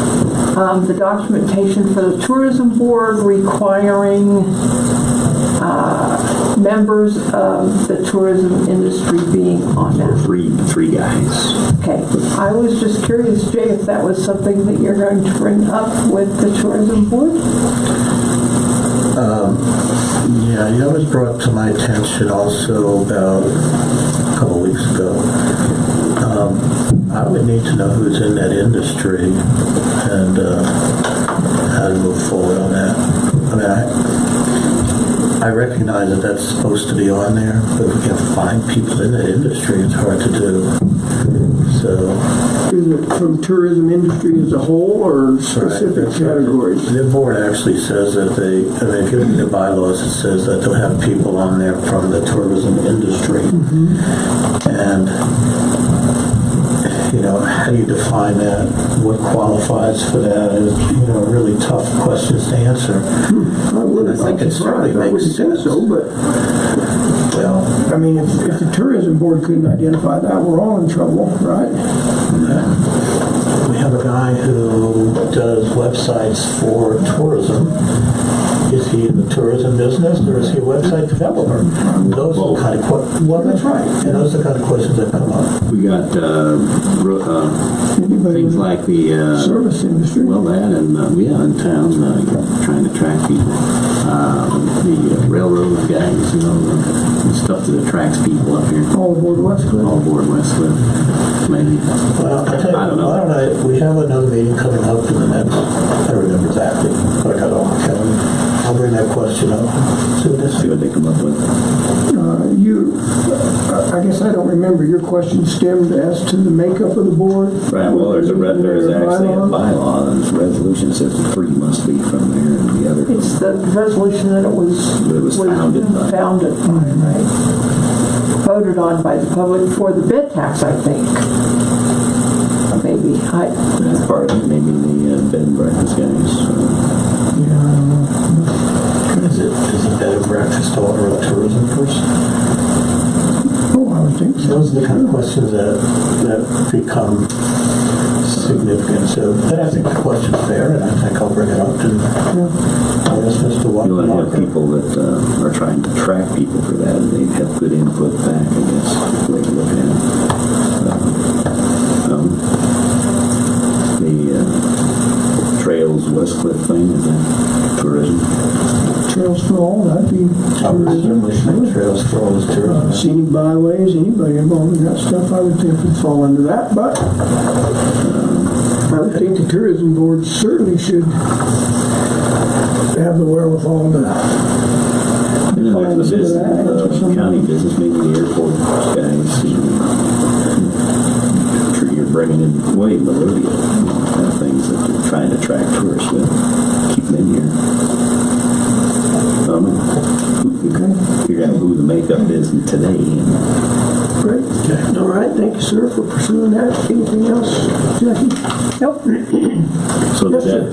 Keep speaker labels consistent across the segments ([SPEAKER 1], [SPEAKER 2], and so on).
[SPEAKER 1] um, the documentation for the tourism board requiring uh, members of the tourism industry being on that.
[SPEAKER 2] Three, three guys.
[SPEAKER 1] Okay, I was just curious, Jay, if that was something that you're going to bring up with the tourism board?
[SPEAKER 3] Yeah, that was brought to my attention also about a couple weeks ago. Um, I would need to know who's in that industry and uh, how to move forward on that. I mean, I, I recognize that that's supposed to be on there, but if we can find people in that industry, it's hard to do. So,
[SPEAKER 4] Is it from tourism industry as a whole or specific categories?
[SPEAKER 3] The board actually says that they, I mean, if you look at the bylaws, it says that they'll have people on there from the tourism industry. And, you know, how do you define that? What qualifies for that is, you know, really tough questions to answer.
[SPEAKER 4] I wouldn't
[SPEAKER 3] I think
[SPEAKER 4] be
[SPEAKER 3] it certainly
[SPEAKER 4] surprised.
[SPEAKER 3] makes
[SPEAKER 4] I wouldn't think
[SPEAKER 3] sense.
[SPEAKER 4] so, but,
[SPEAKER 3] Well,
[SPEAKER 4] I mean, if, if the tourism board couldn't identify that, we're all in trouble, right?
[SPEAKER 3] we have a guy who does websites for tourism. Is he in the tourism business or is he a website developer? Those are the kind of questions, well, that's right, and those are the kind of questions that come up.
[SPEAKER 2] We got uh, ro- uh,
[SPEAKER 4] Anybody
[SPEAKER 2] things
[SPEAKER 4] in
[SPEAKER 2] like the
[SPEAKER 4] the
[SPEAKER 2] uh,
[SPEAKER 4] service industry?
[SPEAKER 2] Well, that and uh, yeah, in town, uh, trying to track people, um, the uh, railroad guys, you know, the stuff that attracts people up here.
[SPEAKER 4] All aboard West Cliff?
[SPEAKER 2] All aboard West Cliff, maybe.
[SPEAKER 3] Well, I tell you,
[SPEAKER 2] I don't know.
[SPEAKER 3] why don't I, we have another meeting coming up in the next, I don't remember exactly, but I got it on my calendar. I'll bring that question up soon this
[SPEAKER 2] See
[SPEAKER 3] year.
[SPEAKER 2] what they come up with.
[SPEAKER 4] Uh, You, I I guess I don't remember, your question stemmed as to the makeup of the board?
[SPEAKER 2] Right, well, there's a, re- there's actually a
[SPEAKER 4] Bylaw?
[SPEAKER 2] bylaw, and there's a resolution that says the three must be from there and the other.
[SPEAKER 1] It's the resolution that it was.
[SPEAKER 2] That it was founded by.
[SPEAKER 1] founded by, right? Voted on by the public for the bid tax, I think. Maybe, I,
[SPEAKER 2] That's part of it, maybe the uh, bed and breakfast guys. uh,
[SPEAKER 3] Is it, is it bed and breakfast owner a tourism person?
[SPEAKER 4] Oh, I would think so.
[SPEAKER 3] Those are the kind of questions that, that become significant, so, but I think the question's fair, and I think I'll bring it up to, I'll ask Mr.
[SPEAKER 2] You want to have
[SPEAKER 3] Walker.
[SPEAKER 2] people that uh, are trying to track people for that, and they have good input back, I guess, the way to look at it. Um, The uh, Trails West Cliff thing, is that tourism?
[SPEAKER 4] Trails for all, that'd be
[SPEAKER 3] I would certainly think trails for all is tourism.
[SPEAKER 4] scenic byways, anybody involved in that stuff, I would think would fall under that, but uh, I would think the tourism board certainly should have the wherewithal to,
[SPEAKER 2] You know, there's the business, the county business, maybe the airport guys, you know, I'm sure you're bringing in way Melodia, kind of things that they're trying to attract tourists with, keep them in here. Um, who- Figure out who the makeup is today, and
[SPEAKER 4] great. All right, thank you, sir, for pursuing that. Anything else, Jackie? Nope.
[SPEAKER 2] so
[SPEAKER 4] Yes,
[SPEAKER 2] that,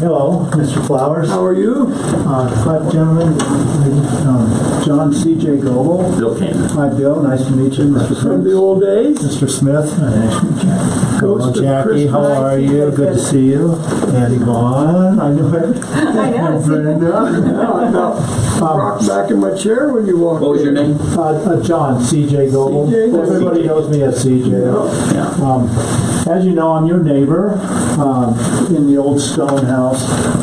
[SPEAKER 5] Hello, Mr. Flowers.
[SPEAKER 4] How are you?
[SPEAKER 5] Uh, Five gentlemen, um, John C.J. Goble.
[SPEAKER 2] Bill Cannon.
[SPEAKER 5] Hi, Bill, nice to meet you. Mr.
[SPEAKER 4] From the
[SPEAKER 5] Smith.
[SPEAKER 4] old days?
[SPEAKER 5] Mr. Smith. nice to meet you. Hello,
[SPEAKER 4] Ghost of
[SPEAKER 5] Jackie, how
[SPEAKER 1] Christmas.
[SPEAKER 5] are you? Good to see you. And Yvonne, I knew it.
[SPEAKER 1] I know,
[SPEAKER 5] And
[SPEAKER 1] it's-
[SPEAKER 5] Brenda.
[SPEAKER 4] Now I about rocked back in my chair when you walked in.
[SPEAKER 2] What was your name?
[SPEAKER 5] Uh, uh, John C.J. Goble.
[SPEAKER 4] C.J. Goble.
[SPEAKER 5] Everybody knows me as C.J.
[SPEAKER 2] Yeah,
[SPEAKER 5] Um, As you know, I'm your neighbor um, in the old stone house.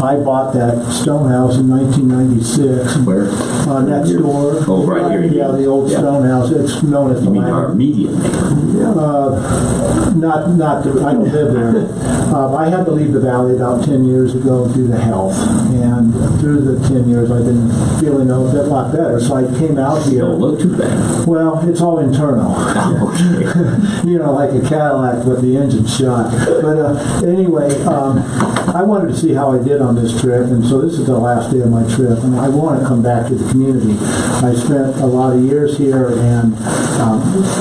[SPEAKER 5] I bought that stone house in 1996.
[SPEAKER 2] where?
[SPEAKER 5] Uh, next door.
[SPEAKER 2] Oh, right here.
[SPEAKER 5] Yeah, the old
[SPEAKER 2] Yeah.
[SPEAKER 5] stone house, it's known as the
[SPEAKER 2] You mean our
[SPEAKER 5] Lamb.
[SPEAKER 2] immediate neighbor?
[SPEAKER 5] Uh, Not, not, the- I don't live there. Um, I had to leave the valley about 10 years ago due to health. And through the 10 years, I've been feeling a bit lot better. So I came out
[SPEAKER 2] Don't
[SPEAKER 5] here.
[SPEAKER 2] look too bad.
[SPEAKER 5] Well, it's all internal.
[SPEAKER 2] Okay.
[SPEAKER 5] you know, like a Cadillac with the engine shot. But uh, anyway, um, I wanted to see how I did on this trip, and so this is the last day of my trip, and I want to come back to the community. I spent a lot of years here, and um,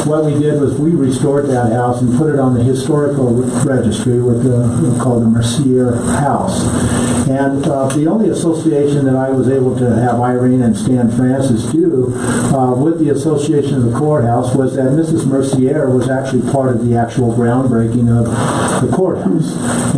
[SPEAKER 5] what we did was we restored that house and put it on the historical registry with the called the Mercier House. And uh, the only association that I was able to have Irene and Stan Francis do uh, with the Association of the Courthouse was that Mrs. Mercier was actually part of the actual groundbreaking of the courthouse.